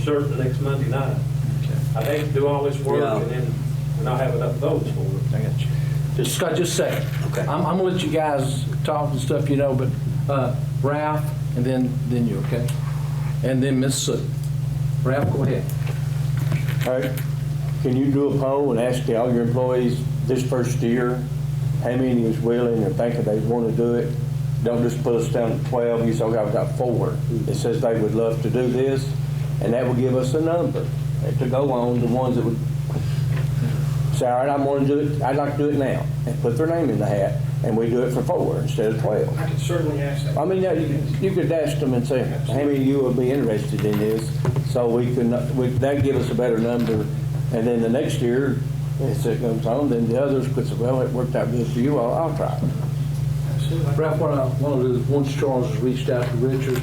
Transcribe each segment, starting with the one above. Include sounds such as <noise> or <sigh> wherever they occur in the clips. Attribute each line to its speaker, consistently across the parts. Speaker 1: certain next Monday night. I'd hate to do all this
Speaker 2: Yeah.
Speaker 1: work and then not have enough votes for it.
Speaker 3: I got you.
Speaker 4: Just, Scott, just a second.
Speaker 2: Okay.
Speaker 4: I'm, I'm gonna let you guys talk and stuff, you know, but, uh, Ralph, and then, then you, okay? And then Miss Sue. Ralph, go ahead.
Speaker 3: All right, can you do a poll and ask all your employees this first year, how many is willing or thinking they want to do it? Don't just put us down to 12, you say, okay, I've got four that says they would love to do this, and that would give us a number to go on, the ones that would say, all right, I'm going to do it, I'd like to do it now, and put their name in the hat, and we do it for four instead of 12.
Speaker 5: I could certainly ask that.
Speaker 3: I mean, yeah, you you could ask them and say, how many of you would be interested in this? So we can, we- that'd give us a better number. And then the next year, as it comes on, then the others could say, well, it worked out good for you, I'll, I'll try. it."
Speaker 5: Absolutely.
Speaker 4: Ralph, uh, what I want to do is, once Charles has reached out to Richard,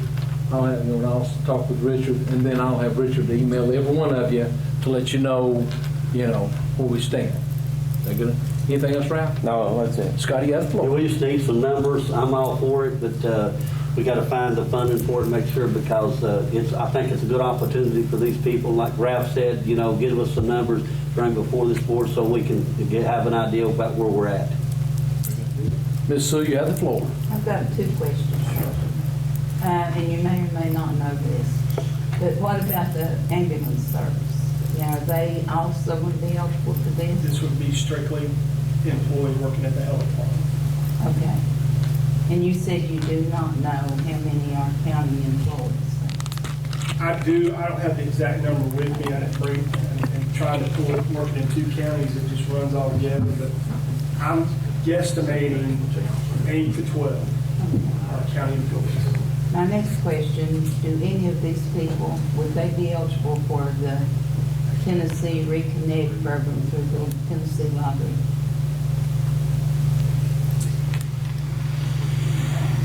Speaker 4: I'll have, you know, I'll talk with Richard, and then I'll have Richard email every one of you to let you know, you know, where we stand. Is that good? Anything else, Ralph?
Speaker 3: No, that's it.
Speaker 4: Scotty, you got the
Speaker 2: Yeah,
Speaker 4: floor.
Speaker 2: we just need some numbers. I'm all for it, but uh, we got to find the funding for it, and make sure, because uh, it's, I think it's a good opportunity for these people. Like Ralph said, you know, give us some numbers, bring before this board so we can get- have an idea about where we're at.
Speaker 4: Miss Sue, you have the floor.
Speaker 6: I've got two questions. Uh, and you may or may not know this, but what about the ambulance service? Now, are they also would be eligible for this?
Speaker 5: This would be strictly employees working at the health department.
Speaker 6: Okay. And you said you do not know how many are county employees.
Speaker 5: I do, I don't have the exact number with me, I didn't bring, and and trying to pull it, working in two counties, it just runs all together, but I'm guesstimating eight to 12 are county employees.
Speaker 6: My next question, do any of these people, would they be eligible for the Tennessee Reconnect program through the Tennessee Lottery?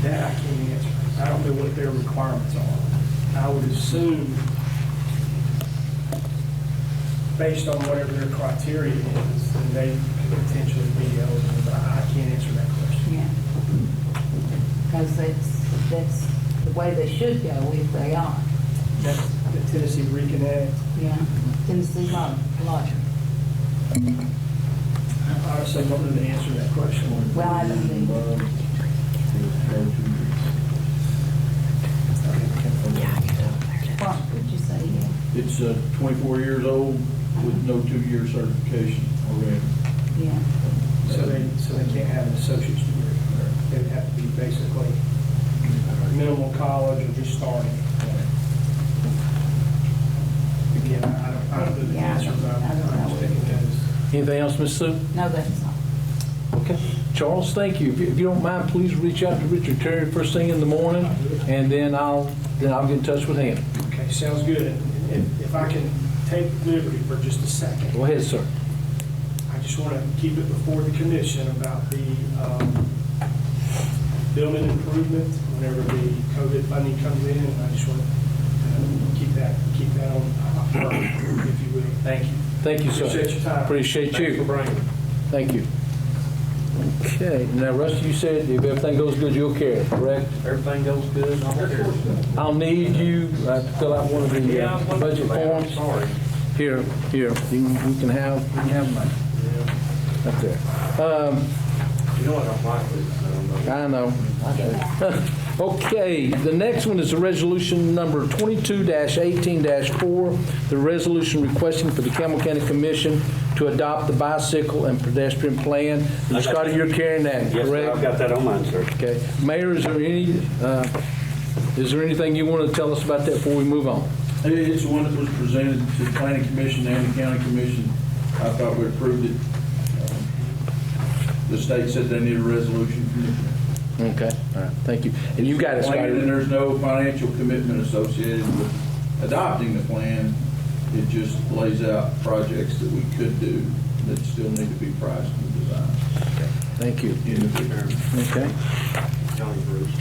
Speaker 5: That I can't answer. I don't know what their requirements are. I would assume, based on whatever their criteria is, then they could potentially be eligible, but I I can't answer that question.
Speaker 6: Yeah. Because that's, that's the way they should go if they are.
Speaker 5: That's the Tennessee Reconnect.
Speaker 6: Yeah, Tennessee law, law.
Speaker 5: I honestly don't know the answer to that question.
Speaker 6: Well, I don't think, what would you say, yeah?
Speaker 7: It's uh, 24 years old with no two-year certification already.
Speaker 6: Yeah,
Speaker 5: So they, so they can't have an associate's degree. They would have to be basically minimal college or just starting. Again, I don't, I don't know the
Speaker 6: Yeah, I
Speaker 5: answer,
Speaker 6: don't-
Speaker 5: but I'm
Speaker 6: I don't know.
Speaker 5: I'm thinking that is.
Speaker 4: Anything else, Miss Sue?
Speaker 6: no, that's all.
Speaker 4: Okay. Charles, thank you. If you- if you don't mind, please reach out to Richard Terry first thing in the morning, and then I'll, then I'll get in touch with him.
Speaker 5: Okay, sounds good. And If, if I can take liberty for just a second,
Speaker 4: Go ahead, sir.
Speaker 5: I just want to keep it before the commission about the um, building improvement, whenever the COVID funding comes in, and I just want to keep that, keep that on, uh, if you will. Thank you.
Speaker 4: Thank you, sir.
Speaker 5: Appreciate your time.
Speaker 4: Appreciate
Speaker 1: Thanks for
Speaker 4: you.
Speaker 1: bringing it.
Speaker 4: Thank you. Okay, now Rusty, you said if everything goes good, you'll care, correct?
Speaker 1: Everything goes good and all that.
Speaker 4: I'll need you uh, to fill out one of the
Speaker 1: Yeah,
Speaker 4: uh,
Speaker 1: I'm looking
Speaker 4: budget
Speaker 1: for that. I'm
Speaker 4: forms.
Speaker 1: Sorry.
Speaker 4: Here, here, you can- you can have, you can have mine. Up there. Um,
Speaker 1: You know I don't like this. um, I don't know.
Speaker 4: I know. <laughs> Okay, the next one is a resolution number 22-18-4, the resolution requesting for the Campbell County Commission to adopt the bicycle and pedestrian plan. And Scotty, you're carrying that,
Speaker 2: Yes, sir, I've
Speaker 4: correct?
Speaker 2: got that on mine, sir.
Speaker 4: Okay. Mayor, is there any, uh, is there anything you want to tell us about that before we move on?
Speaker 7: It- It's the one that was presented to the planning commission and the county commission. I thought we approved it. Um, The state said they need a resolution from the
Speaker 4: Okay, all right, thank you. And you got it,
Speaker 7: plan, and
Speaker 4: Scotty.
Speaker 7: there's no financial commitment associated with adopting the plan. It just lays out projects that we could do that still need to be priced and designed.
Speaker 4: Thank you.
Speaker 7: in the future.
Speaker 4: Okay.
Speaker 1: Johnny Bruce.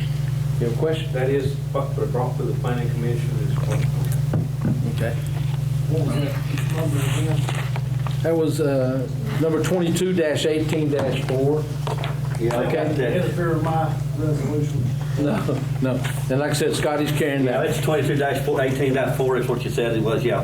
Speaker 4: You have a question?
Speaker 1: That is what they brought to the planning commission is what.
Speaker 4: Okay. That was uh, number 22-18-4.
Speaker 2: Yeah, I got
Speaker 4: Okay.
Speaker 2: that.
Speaker 8: interfere with my resolution.
Speaker 4: No, no. And like I said, Scotty's carrying that.
Speaker 2: Yeah, it's twenty-two dash four, eighteen dot four is what you said it was, yeah.